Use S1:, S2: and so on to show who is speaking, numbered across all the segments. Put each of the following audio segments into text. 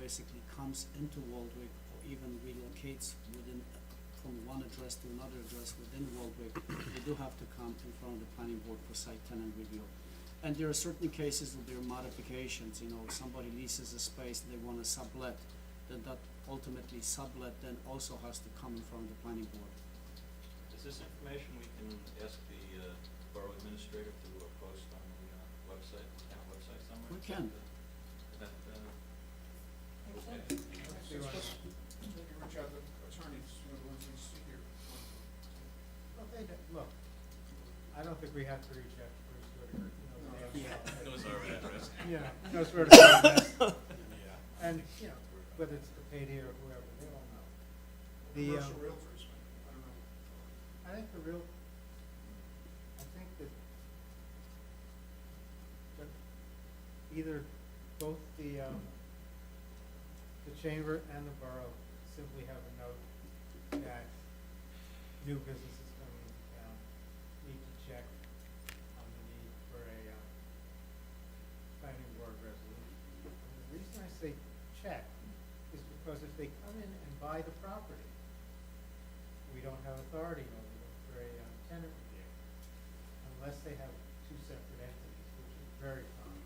S1: basically comes into Waldwick or even relocates within, from one address to another address within Waldwick, they do have to come in front of the planning board for site tenant review. And there are certain cases that there are modifications, you know, if somebody leases a space, they wanna sublet, then that ultimately sublet then also has to come in front of the planning board.
S2: Is this information we can ask the uh, borough administrator to uh, post on the uh, website, town website somewhere?
S1: We can.
S2: That, uh, okay.
S3: Maybe reach out to attorneys, you know, the ones we see here.
S4: Well, they don't, look, I don't think we have to reach out to Bruce Whitaker, you know, they have.
S2: It was our address.
S4: Yeah, knows where to find us. And, you know, whether it's the Payday or whoever, they all know. The, um,
S3: Commercial realtors, I don't know.
S4: I think the real, I think that that either both the, um, the chamber and the borough simply have a note that new businesses coming into town need to check on the need for a, um, planning board resolution. And The reason I say check is because if they come in and buy the property, we don't have authority over them for a um, tenant review, unless they have two separate entities, which is very common.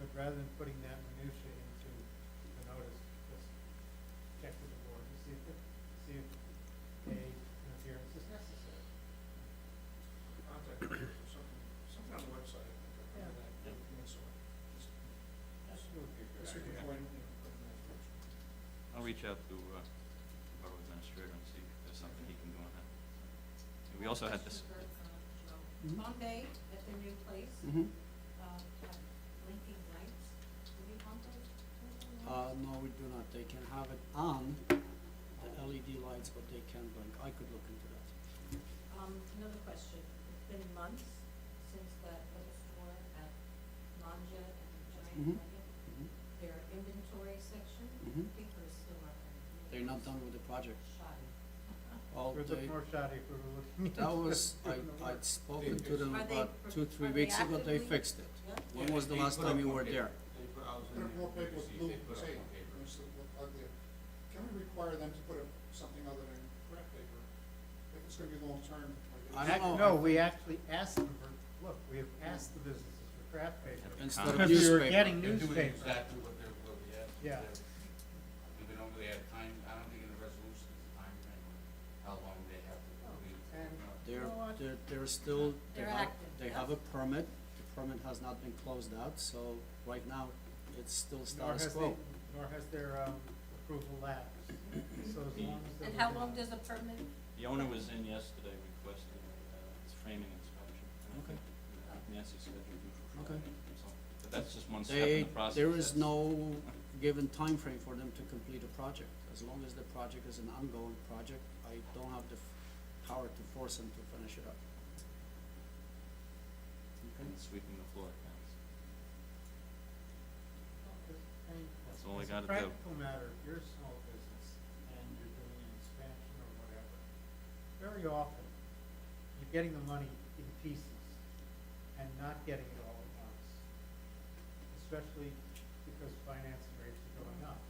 S4: But rather than putting that minutia into the notice, just check with the board and see if, it- see if a, an appearance is necessary.
S3: Contact numbers or something, something on the website, I think, I
S4: Yeah.
S3: remember that,
S2: Yeah.
S3: and so on. Just-
S4: That would be a good
S3: That's a good
S4: idea.
S3: point, you know, put in that direction.
S2: I'll reach out to uh, borough administrator and see if there's something he can do on that. And We also had this,
S1: Mhm.
S5: Bombay, at their new place,
S1: Mm-hmm.
S5: uh, have blinking lights, do we want those? blinking
S1: Uh,
S5: lights?
S1: no, we do not, they can have it on, the LED lights, but they can blink, I could look into that.
S5: Um, another question, it's been months since that little store at Manja
S1: Mhm.
S5: and Giant Market,
S1: Mhm.
S5: their inventory section,
S1: Mhm.
S5: people are still on it.
S1: They're not done with the project.
S5: Shoddy.
S1: Oh,
S4: We're
S1: they,
S4: looking more shoddy if we were looking.
S1: that was, I,
S4: into-
S1: I'd spoken to
S6: They-
S1: them
S5: Are they
S1: about
S5: pro-
S1: two, three
S5: are they
S1: weeks ago, they
S5: actively-
S1: fixed it.
S5: Yeah,
S1: When was the
S6: They
S1: last
S6: put
S1: time
S6: up
S1: you
S6: on
S1: were
S6: paper.
S1: there?
S6: They put out
S3: Put
S6: in
S3: up
S6: the
S3: more paper with
S6: paper,
S3: blue
S6: they put up
S3: tape,
S6: on paper.
S3: makes it look ugly. Can we require them to put up something other than crap paper? If it's gonna be long-term,
S1: I
S3: like.
S1: don't know.
S4: Act- No, we actually asked them for, look, we have asked the businesses for craft paper.
S1: Instead of
S2: Because
S4: Because we were
S1: newspaper.
S4: getting
S6: They're doing
S4: newspapers.
S6: exactly what they're, what we asked.
S4: Yeah.
S6: We don't really have time, I don't think in the resolution is a time frame on how long they have to complete.
S4: Oh, and-
S6: No.
S1: They're,
S4: know what?
S1: they're, they're still, they
S5: They're
S1: have,
S5: active,
S1: they
S5: yes.
S1: have a permit, the permit has not been closed out, so right now, it's still
S4: Nor
S1: status
S4: has
S1: quo.
S4: they, nor has their, um, approval lapsed, so as long as.
S5: and
S4: they're
S5: how
S4: within-
S5: long does a permit,
S2: the owner was in yesterday requesting uh, his framing inspection. And I
S1: Okay.
S2: think, uh, Nancy said we do for
S1: Okay.
S2: Friday, so- But that's just one step in
S1: They,
S2: the process.
S1: there is
S2: That's-
S1: no given time frame for them to complete a project, as long as the project is an ongoing project, I don't have the f- power to force them to finish it up.
S2: And sweeping the floor counts.
S4: That's
S2: That's all I
S4: It's a
S2: gotta do.
S4: practical matter, if you're a small business and you're doing an expansion or whatever, very often, you're getting the money in pieces and not getting it all at once. Especially because financing rates are going up.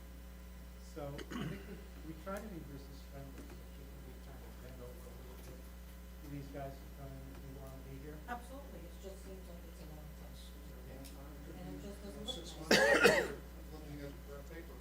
S4: So I think we, we try to be business friendly, so shouldn't we kind of bend over a little bit? to These guys who come in, who wanna be here,
S5: absolutely, it just seems like it's a long time. And it just doesn't look
S3: Six
S5: nice.
S3: months, looking at crap paper.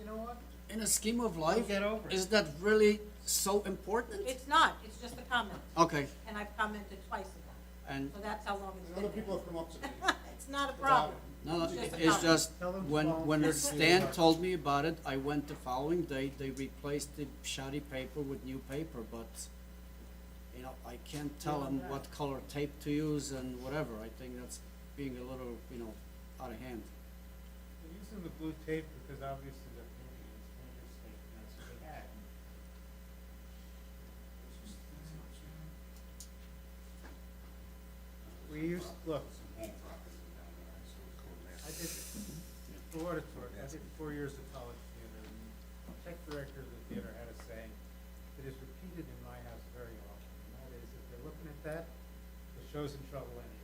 S4: you know what?
S1: In a scheme of life,
S4: get over it.
S1: is that really so important?
S5: It's not, it's just a comment,
S1: Okay,
S5: and I've commented twice about it,
S1: and,
S5: so that's how long it's
S3: And
S5: been
S3: other
S5: there.
S3: people have come up to me.
S5: It's not a
S3: without
S5: problem.
S3: it.
S1: no, no,
S5: It's just a
S1: it's
S5: comment.
S1: just,
S4: Tell them to
S1: when,
S4: follow
S1: when
S4: the
S1: Stan
S4: rules.
S1: told me about it, I went the following day, they replaced the shoddy paper with new paper, but, you know, I can't tell them what color tape to use and whatever, I think that's being a little, you know, out of hand.
S4: They're using the blue tape because obviously they're painting, it's painter's tape, and that's what they had. We used, look,
S6: Some home properties down there, so it's called that.
S4: I did, for what it's worth, I did four years of college theater, and the tech director of the theater had a saying that is repeated in my house very often, and that is, if they're looking at that, the show's in trouble anyhow.